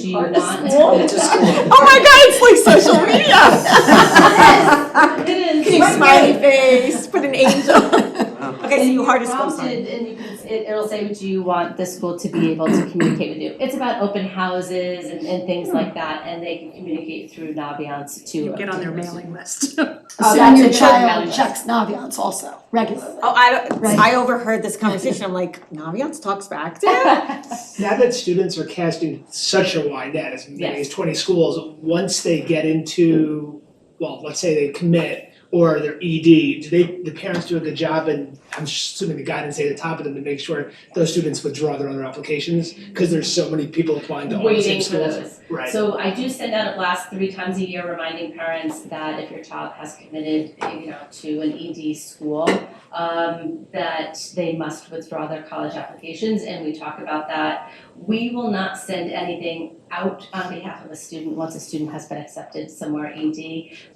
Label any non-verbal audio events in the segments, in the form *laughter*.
you Or want to *laughs* to school. school? Oh my god, it's *laughs* like social media. It is. Big Right, smiley right. *laughs* face, put an angel. Okay, so And you hard to you're school, sorry. prompted And you can, it, it'll say what you want the school to be able to communicate with you. It's about open houses and, and things Hmm. like that, and they can communicate through Naviance to. Get on their *laughs* mailing list. Oh, Send that's your a child child out. *laughs* checks Naviance also regularly. Oh, I, Right. I overheard this conversation, I'm like, Naviance talks back to him? Now that students are casting such a wide net, as many as twenty schools, once they get into, well, let's say they commit or they're ED, do they, the parents do a good job and I'm assuming the guidance at the top of them to make sure those students withdraw their other applications, cause there's so many people applying to all the Waiting same for schools. those. Right, So I do send out a blast three times a year reminding parents that if your child has committed, you know, to an ED school, um, that they must withdraw their college applications, and we talk about that. We will not send anything out on behalf of a student once a student has been accepted somewhere ED.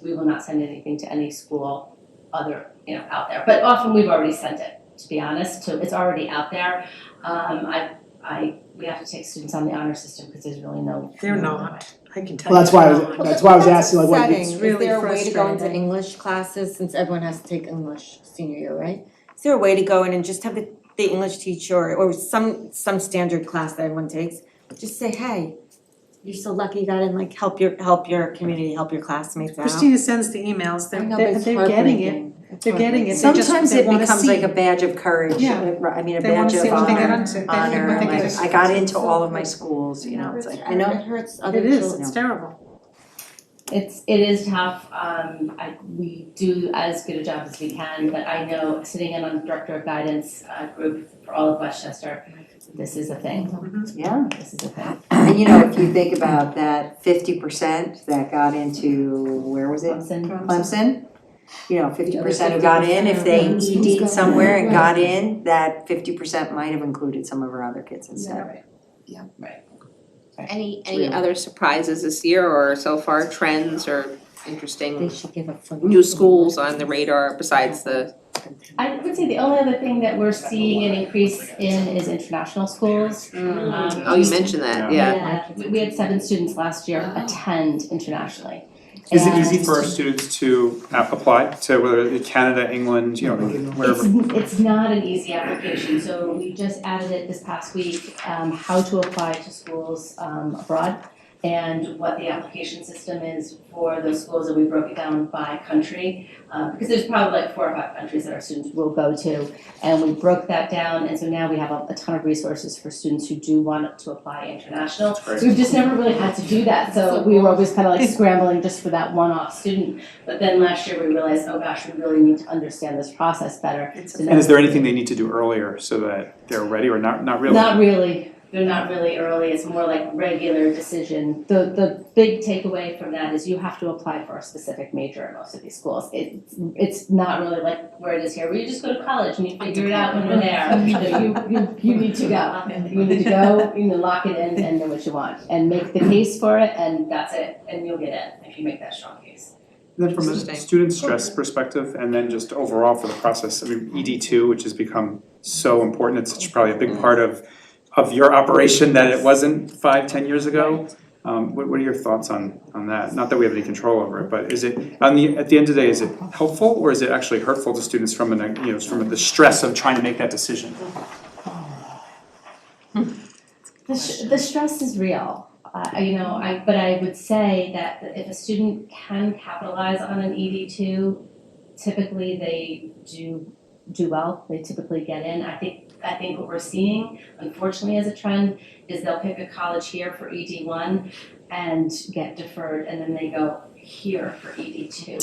We will not send anything to any school other, you know, out there. But often we've already sent it, to be honest, so it's already out there. Um, I, I, we have to take students on the honor system because there's really no. They're not, I can tell you. well, that's why I was, they're not. that's why I was asking like what, Setting, it's is really there a way to go into frustrating. English classes, since everyone has to take English senior year, right? Is there a way to go in and just have the, the English teacher or some, some standard class that everyone takes, just say, hey, you're so lucky you got in, like, help your, help your community, help your classmates out. Christina sends the emails, I they're, know, but they're, it's they're getting it, heartbreaking. It's they're getting it, they just, Sometimes they it wanna becomes like see, a badge of courage, Yeah. uh, I mean, a they wanna badge see of what they got honor, onto, they think honor, what they like, got- I got into all of my schools, you know, it's like, I know, It hurts other It children. is, it's terrible. It's, it is tough, um, I, we do as good a job as we can, but I know, sitting in on the director of guidance, uh, group for all of Westchester, this is a thing, yeah. this is a thing. And you know, if you think about that fifty percent that got into, where was it, Clemson, Clemson? You know, fifty other percent who got in, if they Mhm. Schools ED'd got somewhere in, and right. got in, that fifty percent might have included some of our other kids instead. Any, It's any real. other surprises this year or so far, trends or They interesting should give up. new schools on the radar besides the, I would say the only other thing that we're seeing an increase in is international schools. Mm. Um, oh, you mentioned that, yeah. We we had seven students last year attend internationally. Is it And easy for our students to uh, apply to whether it be Canada, England, you know, It's, wherever? it's not an easy application, so we just added it this past week, um, how to apply to schools, um, abroad and what the application system is for those schools, and we broke it down by country, uh, because there's probably like four or five countries that our students will go to, and we broke that down, and so now we have a, a ton of resources for students who do want to apply international. Right. We've just never really had to do that, so we were always kind of like scrambling just for that one-off student. But then last year, we realized, oh gosh, we really need to understand this process better. It's So And is there that's- anything they need to do earlier so that they're ready or not, not really? Not really, they're not really early, it's more like regular decision. The, the big takeaway from that is you have to apply for a specific major in most of these schools. It, it's not really like where it is here, where you just go to college and you figure it out when you're there. You know, you, you, you need to go. You need to go, you know, lock it in and know what you want, and make the case for it, and that's it, and you'll get in if you make that strong case. And then from a Interesting. student stress perspective and then just overall for the process, I mean, ED two, which has become so important, it's such probably a big part of of your operation that it wasn't five, ten years ago. Um what what are your thoughts on on that? Not that we have any control over it, but is it on the at the end of the day, is it helpful or is it actually hurtful to students from an, you know, from the stress of trying to make that decision? The, sh- the stress is real, uh, you know, I, but I would say that if a student can capitalize on an ED two, typically they do, do well, they typically get in. I think, I think what we're seeing, unfortunately as a trend, is they'll pick a college here for ED one and get deferred, and then they go here for ED two.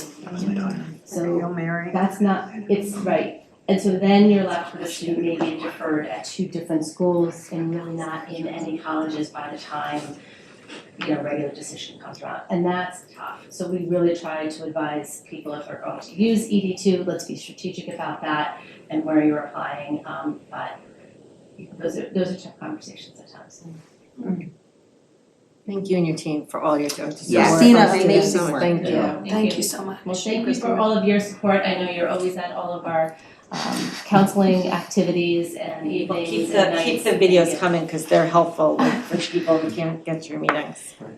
So Hail Mary. that's not, it's right. And so then you're left with a student maybe deferred at two different schools and really not in any colleges by the time, you know, regular decision comes around. And that's tough. So we really try to advise people if they're going to use ED two, let's be strategic about that and where you're applying. Um, but those are, those are tough conversations at times. Thank you and your team for all your jobs. Yeah. Christina, Thank thank you you. so much. Thank you. Thank you so much. Well, thank you for all of your support. I know you're always at all of our um counseling activities and Well, evenings keep and the, nights. keep the Thank you. videos coming, cause they're helpful, like, for people who can't get your meetings.